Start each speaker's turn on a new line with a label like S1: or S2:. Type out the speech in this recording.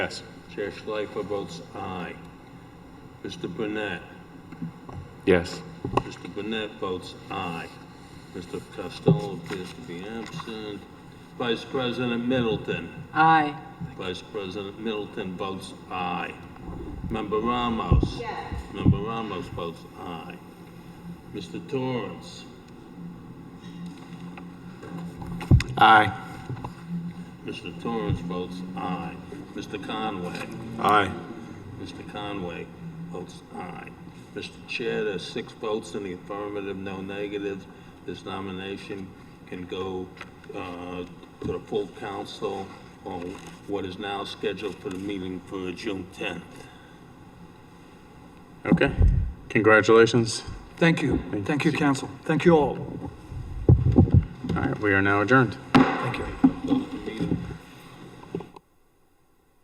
S1: Yes.
S2: Chair Schleifer votes aye. Mr. Burnett?
S1: Yes.
S2: Mr. Burnett votes aye. Mr. Costello appears to be absent. Vice President Middleton?
S3: Aye.
S2: Vice President Middleton votes aye. Member Ramos? Yes. Member Ramos votes aye. Mr. Torrance?
S1: Aye.
S2: Mr. Torrance votes aye. Mr. Conway?
S1: Aye.
S2: Mr. Conway votes aye. Mr. Chair, there's six votes in the affirmative, no negatives. This nomination can go uh, to the full council on what is now scheduled for the meeting for June 10th.
S1: Okay. Congratulations.
S4: Thank you. Thank you, council. Thank you all.
S1: All right, we are now adjourned.
S4: Thank you.
S2: Vote.